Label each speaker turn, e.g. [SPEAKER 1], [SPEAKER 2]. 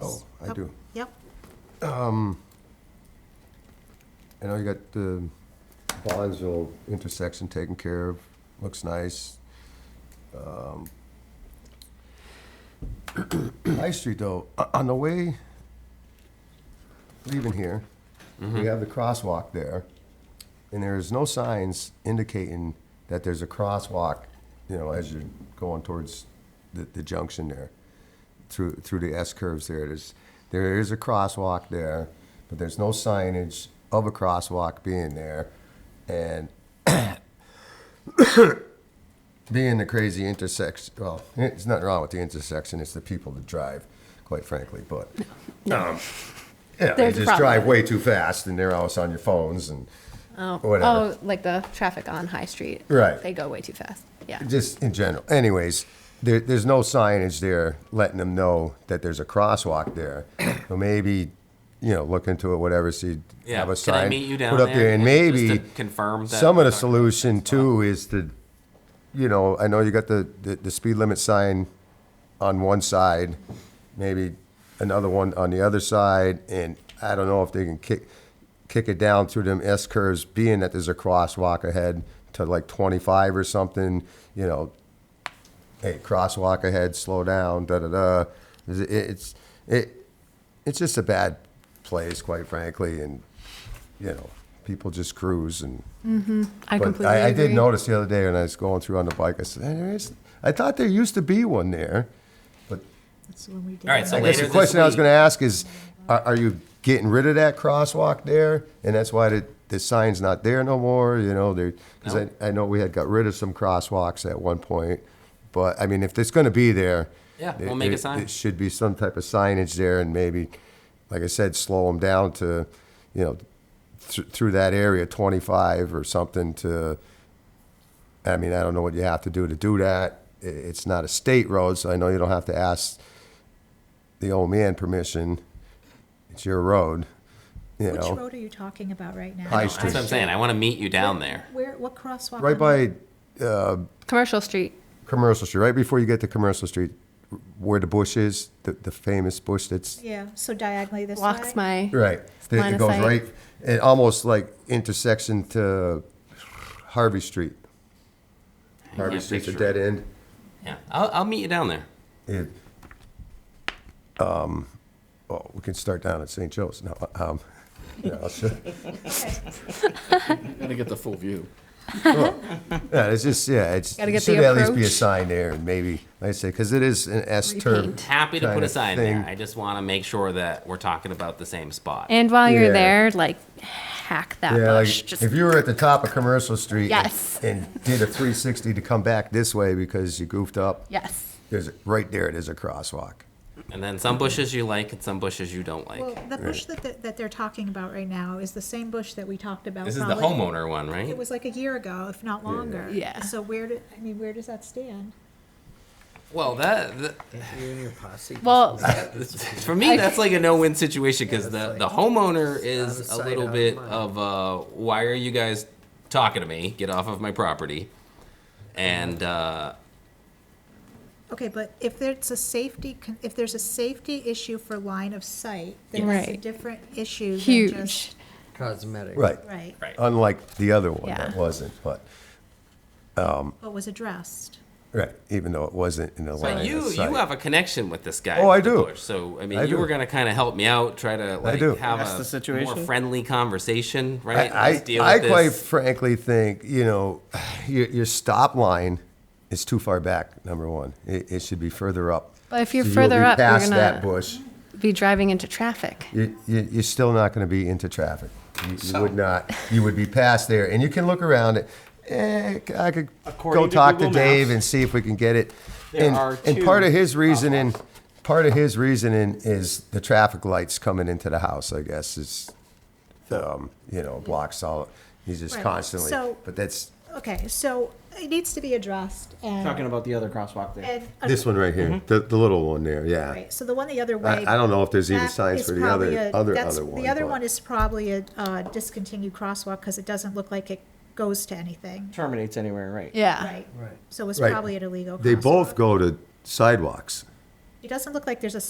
[SPEAKER 1] Oh, I do.
[SPEAKER 2] Oh, Yep,
[SPEAKER 1] I know you got the Bonzo intersection taken care of, looks nice. Um, High Street though, o- on the way leaving here, we have the crosswalk there. And there's no signs indicating that there's a crosswalk, you know, as you're going towards the, the junction there. through through the S curves there. There's there is a crosswalk there, but there's no signage of a crosswalk being there, and being the crazy intersection. Well, it's nothing wrong with the intersection. It's the people that drive, quite frankly. But um, yeah, they
[SPEAKER 3] There's a
[SPEAKER 1] just
[SPEAKER 3] problem.
[SPEAKER 1] drive way too fast, and they're always on your phones and whatever.
[SPEAKER 3] Oh, like the traffic on High Street.
[SPEAKER 1] Right.
[SPEAKER 3] They go way too fast. Yeah.
[SPEAKER 1] just in general. Anyways, there, there's no signage there letting them know that there's a crosswalk there. So maybe, you know, look into it, whatever. See,
[SPEAKER 4] Yeah,
[SPEAKER 1] have a
[SPEAKER 4] can I
[SPEAKER 1] sign
[SPEAKER 4] meet you down
[SPEAKER 1] put up
[SPEAKER 4] there
[SPEAKER 1] there, and
[SPEAKER 4] and
[SPEAKER 1] maybe
[SPEAKER 4] just to confirm that
[SPEAKER 1] some
[SPEAKER 4] we're
[SPEAKER 1] of the
[SPEAKER 4] talking about the
[SPEAKER 1] solution too is to, you know, I know you got the, the, the speed limit sign on one side, maybe another one on the other side, and I don't know if they can kick kick it down through them S curves, being that there's a crosswalk ahead to like 25 or something. You know, hey, crosswalk ahead, slow down, da da da. It's it's, it, it's just a bad place, quite frankly, and you know, people just cruise and.
[SPEAKER 3] I
[SPEAKER 1] But
[SPEAKER 3] completely
[SPEAKER 1] I, I
[SPEAKER 3] agree.
[SPEAKER 1] did notice the other day when I was going through on the bike, I said, "Hey, there is, I thought there used to be one there. But
[SPEAKER 2] that's the one we did.
[SPEAKER 4] All right, so
[SPEAKER 1] I guess
[SPEAKER 4] later
[SPEAKER 1] the
[SPEAKER 4] this
[SPEAKER 1] question I was
[SPEAKER 4] week-
[SPEAKER 1] gonna ask is, are, are you getting rid of that crosswalk there? And that's why the, the sign's not there no more, you know, there, cause I,
[SPEAKER 4] No.
[SPEAKER 1] I know we had got rid of some crosswalks at one point. But, I mean, if it's gonna be there.
[SPEAKER 4] Yeah,
[SPEAKER 1] there-
[SPEAKER 4] we'll make a
[SPEAKER 1] there-
[SPEAKER 4] sign.
[SPEAKER 1] There should be some type of signage there and maybe, like I said, slow them down to, you know, th- through that area, twenty-five or something to, I mean, I don't know what you have to do to do that. I- It's not a state road, so I know you don't have to ask the old man permission. It's your road, you
[SPEAKER 2] Which
[SPEAKER 1] know,
[SPEAKER 2] road are you talking about right now?
[SPEAKER 1] High
[SPEAKER 4] That's what I'm saying. I want to meet you down there.
[SPEAKER 2] Where, what crosswalk?
[SPEAKER 1] right
[SPEAKER 2] on that?
[SPEAKER 1] by
[SPEAKER 3] Commercial Street.
[SPEAKER 1] Commercial Street, right before you get to Commercial Street, where the bush is, the, the famous bush that's
[SPEAKER 2] Yeah, so diagonally this way?
[SPEAKER 3] Walks my.
[SPEAKER 1] Right. The-
[SPEAKER 3] Line
[SPEAKER 1] It
[SPEAKER 3] of
[SPEAKER 1] goes
[SPEAKER 3] sight.
[SPEAKER 1] right, it almost like intersection to Harvey Street. Harvey
[SPEAKER 4] can't
[SPEAKER 1] Street's a
[SPEAKER 4] picture it.
[SPEAKER 1] dead end.
[SPEAKER 4] Yeah, I'll, I'll meet you down there.
[SPEAKER 1] It, um, oh, we can start down at St. Joe's. No, um, yeah, I'll show-
[SPEAKER 5] Gotta get the full view.
[SPEAKER 1] yeah, it's just, yeah, it's,
[SPEAKER 3] Gotta
[SPEAKER 1] there
[SPEAKER 3] get the
[SPEAKER 1] should at least be a
[SPEAKER 3] approach.
[SPEAKER 1] sign there and maybe, like I say, because it is an S curve.
[SPEAKER 3] Repaint.
[SPEAKER 4] Happy to
[SPEAKER 1] Kind
[SPEAKER 4] put a
[SPEAKER 1] of
[SPEAKER 4] sign
[SPEAKER 1] thing.
[SPEAKER 4] there. I just want to make sure that we're talking about the same spot.
[SPEAKER 3] And while
[SPEAKER 1] Yeah.
[SPEAKER 3] you're there, like, hack that
[SPEAKER 1] Yeah,
[SPEAKER 3] bush.
[SPEAKER 1] like
[SPEAKER 3] Just
[SPEAKER 1] if you were at the top of Commercial Street and-
[SPEAKER 3] Yes.
[SPEAKER 1] and did a 360 to come back this way because you goofed up,
[SPEAKER 3] yes.
[SPEAKER 1] there's, right there, it is a crosswalk.
[SPEAKER 4] And then some bushes you like and some bushes you don't like.
[SPEAKER 2] Well, the bush that, that- that they're talking about right now is the same bush that we talked about.
[SPEAKER 4] this is the
[SPEAKER 2] probably-
[SPEAKER 4] homeowner one, right?
[SPEAKER 2] It was like a year ago, if not longer.
[SPEAKER 3] Yeah.
[SPEAKER 2] So where did, I mean, where does that stand?
[SPEAKER 4] well, that, that
[SPEAKER 6] You and your posse.
[SPEAKER 3] Well,
[SPEAKER 4] for me that's like a no-win situation because the, the homeowner
[SPEAKER 6] out of
[SPEAKER 4] is a
[SPEAKER 6] sight,
[SPEAKER 4] little
[SPEAKER 6] out of
[SPEAKER 4] bit
[SPEAKER 6] mind.
[SPEAKER 4] of uh, why are you guys talking to me? Get off of my property. And uh,
[SPEAKER 2] Okay, but if there's a safety, con- if there's a safety issue for line of sight, then it's a
[SPEAKER 3] Right.
[SPEAKER 2] different issue than
[SPEAKER 3] huge.
[SPEAKER 2] just-
[SPEAKER 6] Cosmetic.
[SPEAKER 1] Right.
[SPEAKER 2] Right,
[SPEAKER 4] right.
[SPEAKER 1] Unlike the other one that
[SPEAKER 3] Yeah.
[SPEAKER 1] wasn't, but,
[SPEAKER 2] but was addressed.
[SPEAKER 1] right, even though it wasn't in the line
[SPEAKER 4] But
[SPEAKER 1] of
[SPEAKER 4] you
[SPEAKER 1] sight.
[SPEAKER 4] you have a connection with this guy.
[SPEAKER 1] Oh, I
[SPEAKER 4] with the
[SPEAKER 1] do.
[SPEAKER 4] Bush. So I mean,
[SPEAKER 1] I
[SPEAKER 4] you
[SPEAKER 1] do.
[SPEAKER 4] were gonna kind of help me out, try to like
[SPEAKER 1] do.
[SPEAKER 4] have
[SPEAKER 5] That's
[SPEAKER 4] a
[SPEAKER 5] the situation.
[SPEAKER 4] more friendly conversation, right?
[SPEAKER 1] I,
[SPEAKER 4] Let's
[SPEAKER 1] I,
[SPEAKER 4] deal
[SPEAKER 1] I
[SPEAKER 4] with
[SPEAKER 1] quite
[SPEAKER 4] this.
[SPEAKER 1] frankly think, you know, your, your stop line is too far back, number one. It, it should be further up.
[SPEAKER 3] But if you're
[SPEAKER 1] So you'll
[SPEAKER 3] further
[SPEAKER 1] be
[SPEAKER 3] up, you're
[SPEAKER 1] Past
[SPEAKER 3] gonna-
[SPEAKER 1] that bush,
[SPEAKER 3] Be driving into traffic.
[SPEAKER 1] you, you, you're still not gonna be into traffic. You, you would not, you would be past there, and you can look around it. Eh, I could
[SPEAKER 7] According
[SPEAKER 1] go
[SPEAKER 7] to
[SPEAKER 1] talk to
[SPEAKER 7] Google Maps,
[SPEAKER 1] Dave and see if we can get it.
[SPEAKER 7] there
[SPEAKER 1] And-
[SPEAKER 7] are
[SPEAKER 1] And part
[SPEAKER 7] two
[SPEAKER 1] of his reasoning, part of his reasoning is the traffic lights coming into the house, I guess, is, um, you know, blocks all, he's just
[SPEAKER 2] Right.
[SPEAKER 1] constantly,
[SPEAKER 2] So-
[SPEAKER 1] but that's,
[SPEAKER 2] Okay, so it needs to be addressed and.
[SPEAKER 7] Talking about the other crosswalk there.
[SPEAKER 2] And.
[SPEAKER 1] this one right here,
[SPEAKER 7] Mm-hmm.
[SPEAKER 1] the, the little one there, yeah.
[SPEAKER 2] Right, so the one the other
[SPEAKER 1] I,
[SPEAKER 2] way.
[SPEAKER 1] I don't know if there's even
[SPEAKER 2] that
[SPEAKER 1] signs
[SPEAKER 2] is
[SPEAKER 1] for the
[SPEAKER 2] probably
[SPEAKER 1] other,
[SPEAKER 2] a-
[SPEAKER 1] other,
[SPEAKER 2] that's-
[SPEAKER 1] other one.
[SPEAKER 2] The other
[SPEAKER 1] but-
[SPEAKER 2] one is probably a uh, discontinued crosswalk because it doesn't look like it goes to anything.
[SPEAKER 7] Terminates anywhere, right?
[SPEAKER 3] Yeah.
[SPEAKER 2] Right. So it's
[SPEAKER 1] Right.
[SPEAKER 2] probably an illegal crosswalk.
[SPEAKER 1] They both go to sidewalks.
[SPEAKER 2] It doesn't look like there's a